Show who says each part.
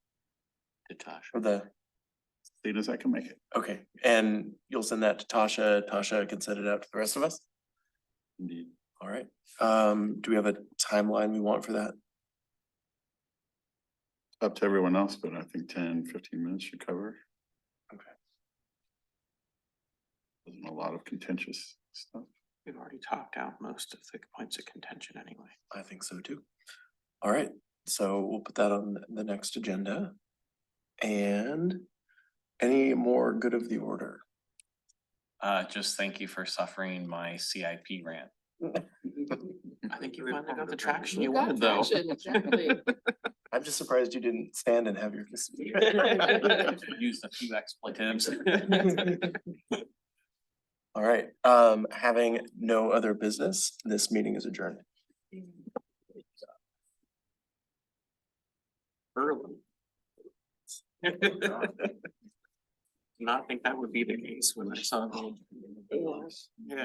Speaker 1: to Tasha.
Speaker 2: for the,
Speaker 1: Soon as I can make it.
Speaker 2: okay, and you'll send that to Tasha, Tasha can send it out to the rest of us?
Speaker 1: Indeed.
Speaker 2: All right, um, do we have a timeline we want for that?
Speaker 1: Up to everyone else, but I think 10, 15 minutes should cover.
Speaker 2: Okay.
Speaker 1: Wasn't A lot of contentious stuff.
Speaker 3: We've already talked out most of the points of contention anyway.
Speaker 2: I think so too. All right, so we'll put that on the next agenda. And any more good of the order?
Speaker 4: Uh, just thank you for suffering my CIP rant.
Speaker 3: I think you finally got the traction
Speaker 5: You
Speaker 3: you
Speaker 5: got
Speaker 3: wanted though.
Speaker 5: traction, exactly.
Speaker 2: I'm just surprised you didn't stand and have your.
Speaker 4: Used a few expletives.
Speaker 2: All right, um, having no other business, this meeting is adjourned.
Speaker 3: Early. Not think that would be the case when I saw. the- Yeah.